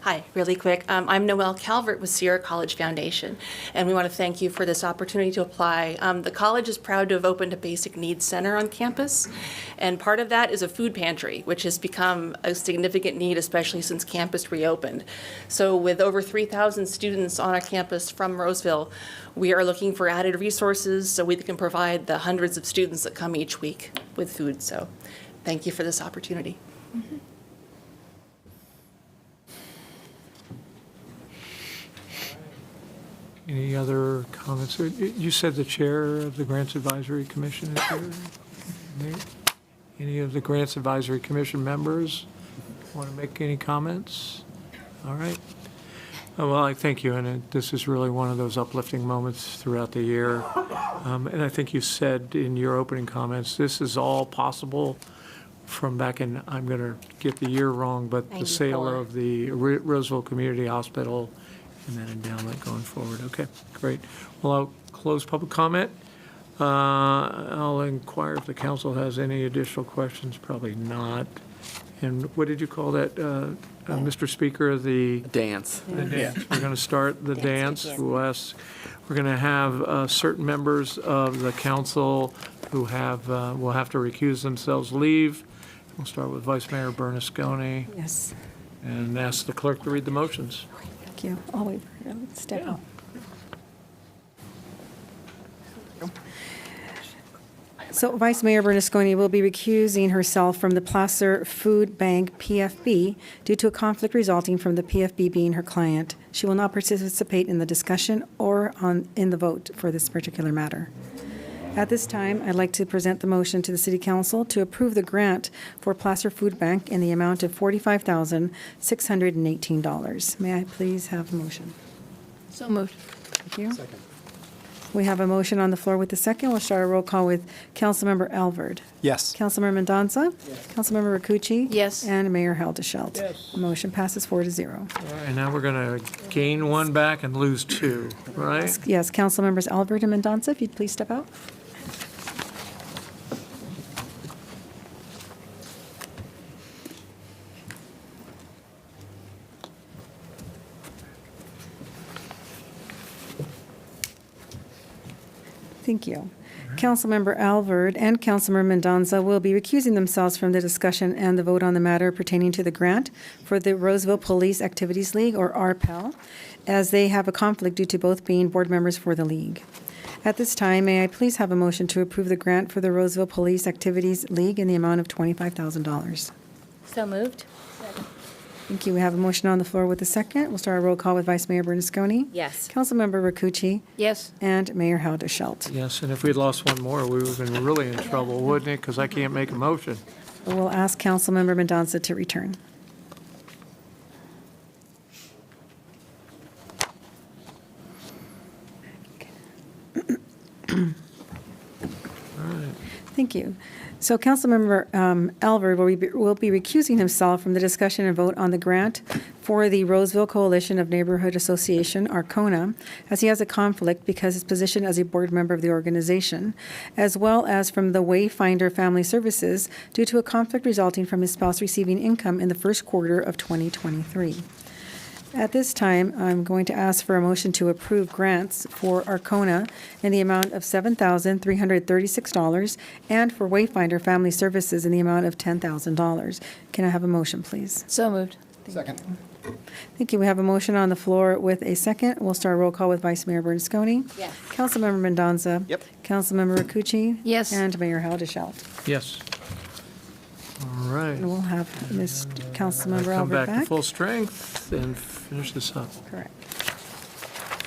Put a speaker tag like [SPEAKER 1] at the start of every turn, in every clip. [SPEAKER 1] Hi, really quick. Um, I'm Noelle Calvert with Sierra College Foundation, and we want to thank you for this opportunity to apply. Um, the college is proud to have opened a basic needs center on campus, and part of that is a food pantry, which has become a significant need, especially since campus reopened. So, with over 3,000 students on our campus from Roseville, we are looking for added resources so we can provide the hundreds of students that come each week with food. So, thank you for this opportunity.
[SPEAKER 2] Any other comments? Uh, You said the chair of the Grants Advisory Commission is here? Nate? Any of the Grants Advisory Commission members want to make any comments? All right. Uh, Well, I thank you, and uh, this is really one of those uplifting moments throughout the year. Um, And I think you said in your opening comments, this is all possible from back in, I'm going to get the year wrong, but the sale
[SPEAKER 3] 94.
[SPEAKER 2] of the Ro- Roseville Community Hospital and then endowment going forward. Okay, great. Well, I'll close public comment. Uh, I'll inquire if the council has any additional questions, probably not. And what did you call that, uh, uh, Mr. Speaker, the?
[SPEAKER 4] dance.
[SPEAKER 2] We're going to start the dance. We'll ask, we're going to have uh, certain members of the council who have, uh, will have to recuse themselves, leave. We'll start with Vice Mayor Bernasconi
[SPEAKER 3] Yes,
[SPEAKER 2] and ask the clerk to read the motions.
[SPEAKER 3] thank you. I'll wait for you to step
[SPEAKER 2] Yeah.
[SPEAKER 3] up. So Vice Mayor Bernasconi will be recusing herself from the Placer Food Bank PFB due to a conflict resulting from the PFB being her client. She will not participate in the discussion or on, in the vote for this particular matter. At this time, I'd like to present the motion to the City Council to approve the grant for Placer Food Bank in the amount of $45,618. May I please have a motion?
[SPEAKER 5] So moved.
[SPEAKER 3] Thank you. We have a motion on the floor with the second. We'll start a roll call with Councilmember Alvord.
[SPEAKER 6] Yes.
[SPEAKER 3] Councilmember Mendoza. Councilmember Rakucci.
[SPEAKER 5] Yes.
[SPEAKER 3] And Mayor Haildashelt.
[SPEAKER 2] Yes.
[SPEAKER 3] Motion passes four to zero.
[SPEAKER 2] And now we're going to gain one back and lose two, right?
[SPEAKER 3] Yes, Councilmembers Alvord and Mendoza, if you'd please step out. Thank you. Councilmember Alvord and Councilmember Mendoza will be recusing themselves from the discussion and the vote on the matter pertaining to the grant for the Roseville Police Activities League, or RPEL, as they have a conflict due to both being board members for the league. At this time, may I please have a motion to approve the grant for the Roseville Police Activities League in the amount of $25,000?
[SPEAKER 5] So moved?
[SPEAKER 3] Thank you. We have a motion on the floor with a second. We'll start our roll call with Vice Mayor Bernasconi.
[SPEAKER 5] Yes.
[SPEAKER 3] Councilmember Rakucci
[SPEAKER 5] Yes.
[SPEAKER 3] and Mayor Haudashelt.
[SPEAKER 2] Yes, and if we'd lost one more, we would have been really in trouble, wouldn't it? Because I can't make a motion.
[SPEAKER 3] We'll ask Councilmember Mendoza to return. Thank you. So Councilmember um, Alver will be- will be recusing himself from the discussion and vote on the grant for the Roseville Coalition of Neighborhood Association, Arcona, as he has a conflict because his position as a board member of the organization, as well as from the Wayfinder Family Services due to a conflict resulting from his spouse receiving income in the first quarter of 2023. At this time, I'm going to ask for a motion to approve grants for Arcona in the amount of $7,336 and for Wayfinder Family Services in the amount of $10,000. Can I have a motion, please?
[SPEAKER 5] So moved.
[SPEAKER 6] Second.
[SPEAKER 3] Thank you. We have a motion on the floor with a second. We'll start roll call with Vice Mayor Bernasconi.
[SPEAKER 5] Yes.
[SPEAKER 3] Councilmember Mendoza.
[SPEAKER 6] Yep.
[SPEAKER 3] Councilmember Rakucci.
[SPEAKER 5] Yes.
[SPEAKER 3] And Mayor Haudashelt.
[SPEAKER 2] Yes. All right.
[SPEAKER 3] And we'll have Ms. Councilmember
[SPEAKER 2] Come
[SPEAKER 3] Albert
[SPEAKER 2] back to
[SPEAKER 3] back.
[SPEAKER 2] full strength and finish this up.
[SPEAKER 3] Correct.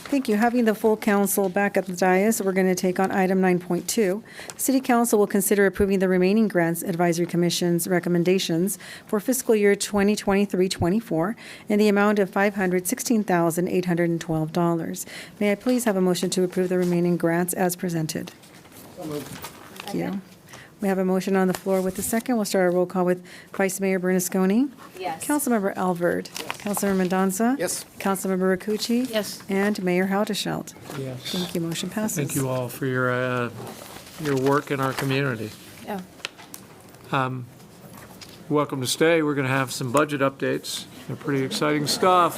[SPEAKER 3] Thank you. Having the full council back at the dais, we're going to take on item 9.2. City Council will consider approving the remaining grants advisory commission's recommendations for fiscal year 2023-24 in the amount of $516,812. May I please have a motion to approve the remaining grants as presented? Thank you. We have a motion on the floor with a second. We'll start a roll call with Vice Mayor Bernasconi.
[SPEAKER 5] Yes.
[SPEAKER 3] Councilmember Alvord. Councilmember Mendoza.
[SPEAKER 6] Yes.
[SPEAKER 3] Councilmember Rakucci.
[SPEAKER 5] Yes.
[SPEAKER 3] And Mayor Haudashelt.
[SPEAKER 2] Yes.
[SPEAKER 3] Thank you. Motion passes.
[SPEAKER 2] Thank you all for your, uh, your work in our community.
[SPEAKER 5] Oh,
[SPEAKER 2] Welcome to stay. We're going to have some budget updates. They're pretty exciting stuff.